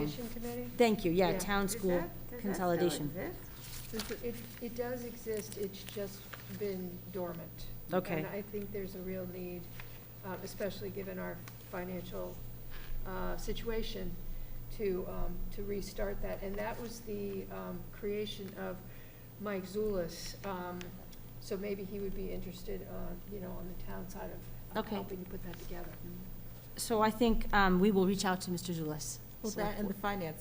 Consolidation Committee? Thank you, yeah, Yeah. town Does school that- does that still consolidation. exist? It, it does exist, it's just been dormant. Okay. And I think there's a real need, uh, especially given our financial uh, situation, to, um, to restart that. And that was the um, creation of Mike Zulis. Um, So maybe he would be interested, uh, you know, on the town side of uh, Okay. helping to put that together. So I think um, we will reach out to Mr. Zulus. Well, Select that and the Board. finance,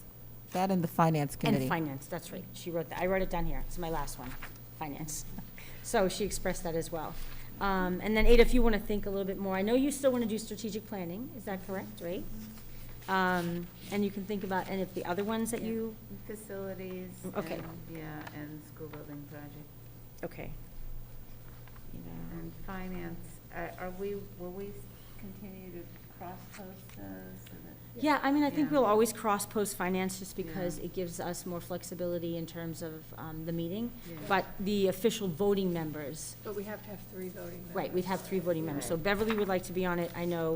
that and the finance committee. And finance, that's right. She wrote that. I wrote it down here. It's my last one, finance. So she expressed that as well. Um, And then Ada, if you want to think a little bit more, I know you still want to do strategic planning, is that correct, right? Um, And you can think about any of the other ones that Yeah. you, Facilities. Okay. and- Yeah, and school building project. okay. You know, And finance, uh, are we, will we continue to cross-post those? so that- Yeah, I mean, I think Yeah. we'll always cross-post finance just because Yeah. it gives us more flexibility in terms of um, the meeting. Yeah. But the official voting members, But we have to have three voting members. right, we'd have three voting members. So Right. Beverly would like to be on it, I know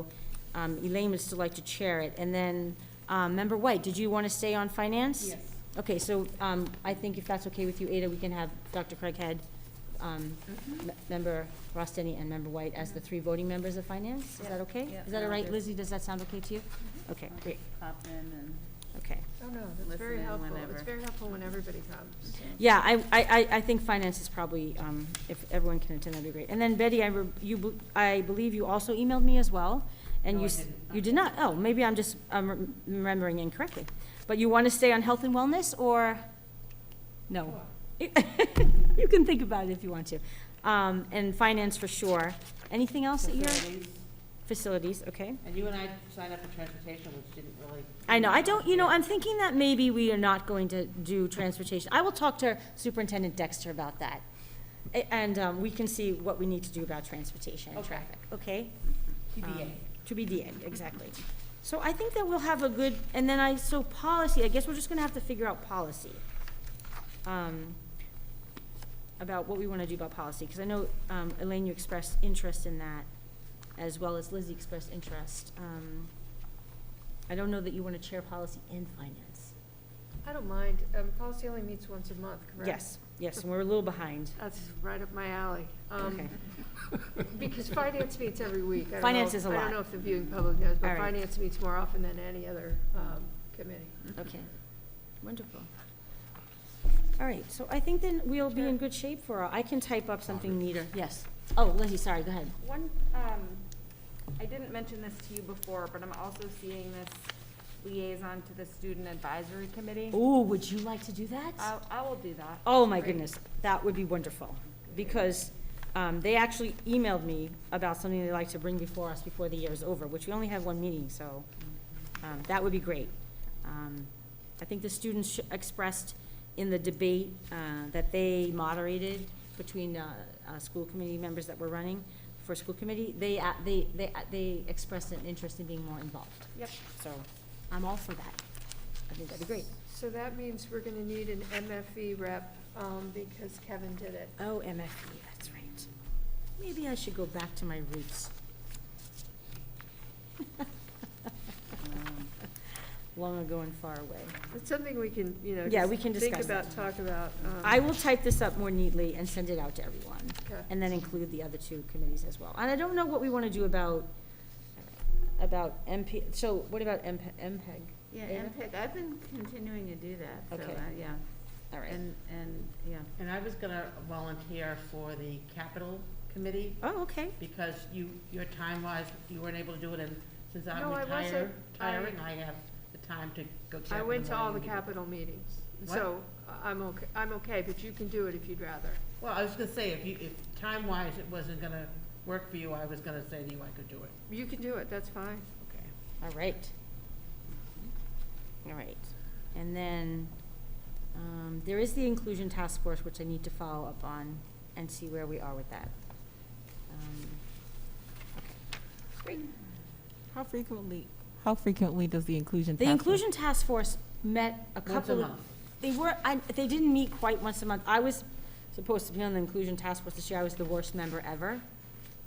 um, Elaine would still like to chair it. And then, um, Member White, did you want to stay on finance? Yes. Okay, so um, I think if that's okay with you, Ada, we can have Dr. Craighead, um, Mhm. M- Member Rostenny, and Member White as the three voting members of finance? Is that Mm-hmm. Yeah. okay? Yeah. Mm-hmm. Is that all Yeah. right, Lizzie? Does that sound okay to you? Okay, I'll great, Pop in and. okay. Oh, no, that's very Listen in helpful. It's whenever. very helpful when everybody comes. Yeah, I, I, I- I think finance is probably, um, if everyone can attend, that'd be great. And then Betty, I, re- you, be- I believe you also emailed me as well, and No, you, I s- didn't. you did not, oh, maybe I'm just um, rem- remembering incorrectly. But you want to stay on health and wellness, or, no? You can think about it if you want to. Um, and finance for sure. Anything else that you're, Facilities. facilities, okay? And you and I signed up for transportation, which didn't really. I know, I don't, you know, I'm thinking that maybe we are not going to do transportation. I will talk to Superintendent Dexter about that. A- And um, we can see what we need to do about transportation and Okay. traffic, okay? TBA. Um, To be DA, exactly. So I think that we'll have a good, and then I, so policy, I guess we're just gonna have to figure out policy. Um, About what we wanna do about policy, because I know, um, Elaine, you expressed interest in that, as well as Lizzie expressed interest. Um, I don't know that you wanna chair policy and finance. I don't mind. Um, Policy only meets once a month, correct? Yes, yes, and we're a little behind. That's right up my alley. Um, Okay. Because finance meets every week. I don't Finance know- is a I lot. don't know if the viewing public knows, All but right. finance meets more often than any other um, committee. Okay, wonderful. All right, so I think then we'll be in good shape for, I can type up something neater, yes. Oh, Lizzie, sorry, go ahead. One, um, I didn't mention this to you before, but I'm also seeing this liaison to the student advisory committee. Ooh, would you like to do I, that? I will do that. Oh, my Great. goodness, that would be wonderful, because um, they actually emailed me about something they'd like to bring before us before the year is over, which we only have one meeting, so um, that would be great. Um, I think the students sh- expressed in the debate uh, that they moderated between uh, uh, school committee members that were running for school committee, they, uh, they, they, uh, they expressed an interest in being more involved. Yep. So I'm all for that. I think that'd be great. So that means we're going to need an MFE rep um, because Kevin did it. Oh, MFE, that's right. Maybe I should go back to my roots. Um, Long ago and far away. It's something we can, you know. Yeah, just we can discuss that. Think about, talk about. um, I will type this up more neatly and send it out to everyone, Okay. and then include the other two committees as well. And I don't know what we want to do about, about MP, so what about MP MPEG? Yeah, Ada? MPIC, I've been continuing to do that, so, Okay. uh, yeah. All right. And, and, yeah. And I was gonna volunteer for the capital committee, Oh, okay. because you, your time-wise, you weren't able to do it, and since I'm No, I retired, wasn't. I- retiring, I have the time to go check. I in went to all the morning. capital meetings, What? so I- I'm okay, I'm okay, but you can do it if you'd rather. Well, I was gonna say, if you, if time-wise it wasn't gonna work for you, I was gonna say to you I could do it. You can do it, that's fine. Okay. All right. All right. And then, um, there is the inclusion task force, which I need to follow up on and see where we are with that. Um, okay. Great. How frequently, how frequently does the inclusion The task force- inclusion task force met a Once a couple of. month. They were, I, they didn't meet quite once a month. I was supposed to be on the inclusion task force this year. I was the worst member ever.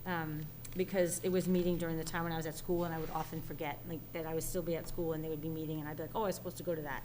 Um, because it was meeting during the time when I was at school, and I would often forget, like, that I would still be at school, and they would be meeting, and I'd be like, oh, I was supposed to go to that.